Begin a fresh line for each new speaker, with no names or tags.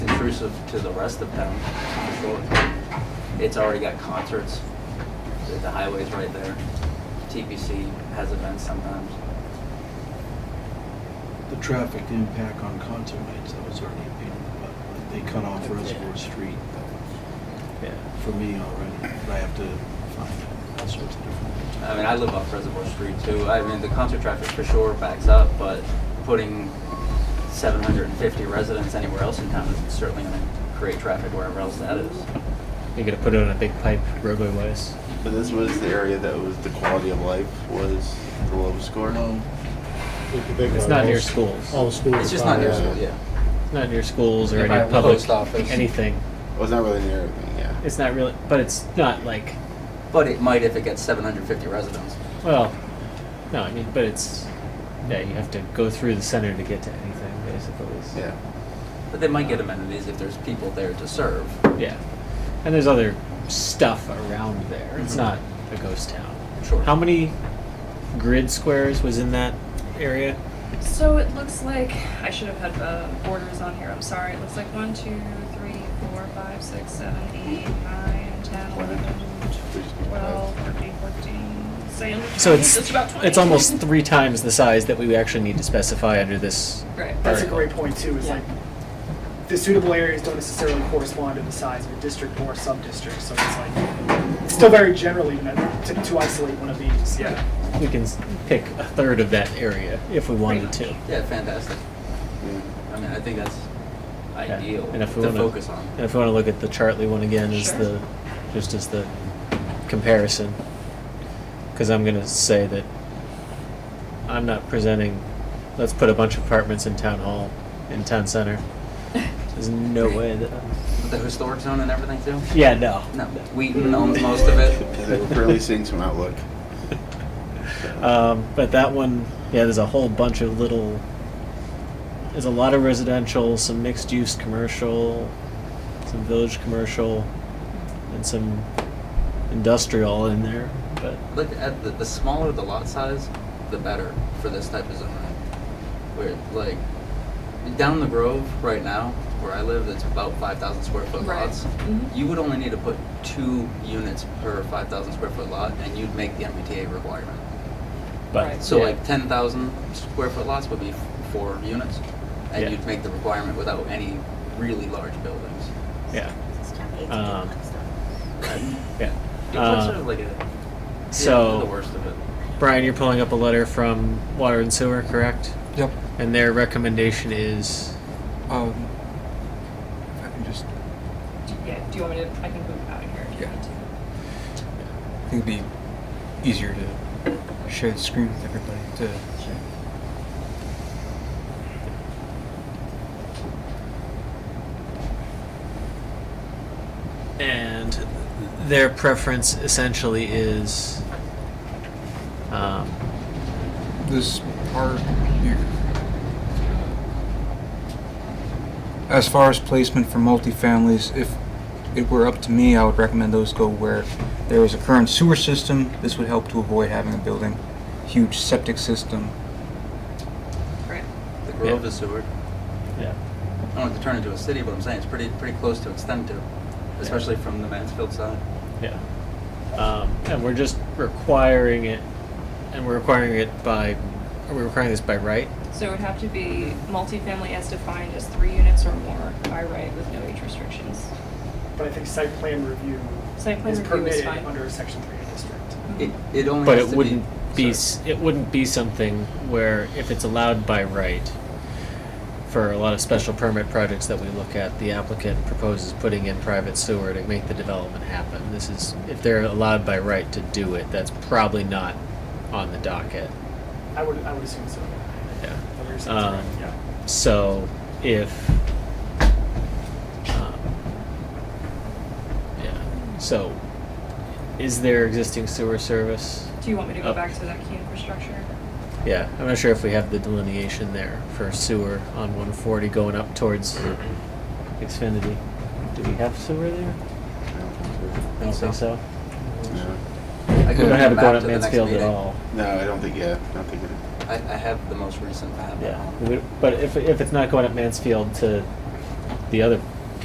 exclusive to the rest of town. for sure. It's already got concerts, the- the highway's right there. TPC has events sometimes.
The traffic impact on concert nights, that was already a pain in the butt. Like, They cut off Reservoir Street
Yeah.
for me already, but I have to find all sorts of different.
I mean, I live off Reservoir Street too. I mean, the concert traffic for sure backs up, but putting 750 residents anywhere else in town is certainly going to create traffic wherever else that is.
You're gonna put it on a big pipe roadway wise.
But this was the area that was the quality of life was the low score.
Well,
It's not near schools.
Oh.
All the schools.
It's just
are
not near
bad.
school, yeah.
It's not near schools or
Yeah, by
any
the
public
post office.
anything.
Well, Oh, it's not really near everything, yeah.
It's not really, but it's not like
But it might if it gets 750 residents.
well, no, I mean, but it's yeah, you have to go through the center to get to anything, basically.
Yeah.
But they might get amenities if there's people there to serve.
Yeah. and there's other stuff around there. It's not a ghost town.
Sure.
How many grid squares was in that area?
So it looks like, I should have had uh, borders on here, I'm sorry. It looks like 1, 2, 3, 4, 5, 6, 7, 8, 9, 10, 11, 12, 13, 14. So you're looking
So
at
it's
just about 20.
it's almost three times the size that we actually need to specify under this.
Right.
That's a
article.
great point too, is like, the suitable areas don't necessarily correspond to the size of a district or sub-district, so it's like, it's still very general even uh, to, to isolate one of these, yeah.
We can s- pick a third of that area if we wanted to.
Yeah, fantastic. I mean, I think that's
Yeah.
ideal
And
to
if we wanna,
focus on.
And if we want to look at the Chartley one again as
Sure.
the, just as the comparison, because I'm going to say that I'm not presenting, let's put a bunch of apartments in town hall, in town center. There's no way that,
The historic zone and everything too?
yeah, no.
No, Wheaton owns most of it.
They were really seeing some outlook.
Um, but that one, yeah, there's a whole bunch of little. There's a lot of residential, some mixed use commercial, some village commercial, and some industrial in there. But
Look at the, the smaller the lot size, the better for this type of zone. Where like down the Grove right now, where I live, it's about five thousand square foot
Right.
lots.
Mhm.
You would only need to put two units per five thousand square foot lot, and you'd make the MBTA requirement.
but
Right.
So
yeah,
like ten thousand square foot lots would be f- four units, and
Yeah.
you'd make the requirement without any really large buildings.
yeah, Um,
Um,
yeah.
Duplexes
Uh,
are like a- yeah, they're the
so
worst of it.
Brian, you're pulling up a letter from Water and Sewer, correct?
Yep.
And their recommendation is
Um, I can just.
Do- Yeah, do you want me to, I can move out of here if you
Yeah.
need to.
I think it'd be easier to share the screen with everybody to.
and their preference essentially is um,
This part here. As far as placement for multifamilies, if it were up to me, I would recommend those go where there is a current sewer system. This would help to avoid having a building, huge septic system.
Right.
The Grove
Yeah.
is Seward.
yeah.
I don't want it to turn into a city, but I'm saying it's pretty pretty close to extend to, especially from the Mansfield side.
Yeah. Um, and we're just requiring it, and we're requiring it by, are we requiring this by right?
So it would have to be multifamily as defined as three units or more by right with no age restrictions.
But I think site plan review
Site plan
is
review is
permitted
fine.
under section three of district.
It it only
Hmm. But
has
it
to
wouldn't be,
be
s it wouldn't be something where if it's allowed by right, for a lot of special permit projects that we look at, the applicant proposes putting in private sewer to make the development happen. This is, if they're allowed by right to do it, that's probably not on the docket.
I would, I would assume so.
Yeah.
Under section
Um,
three, yeah.
So if, um, yeah, so is there existing sewer service?
Do you want me to go
Up.
back to that key infrastructure?
Yeah, I'm not sure if we have the delineation there for sewer on 140 going up towards Xfinity. Do we have sewer there? I don't think so.
No.
I
We
could
don't have it
map
going
to
up
the next
Mansfield at
meeting.
all.
No, I don't think, yeah, I don't think it.
I, I have the most recent map. at
Yeah,
home.
we- but if, if it's not going up Mansfield to the other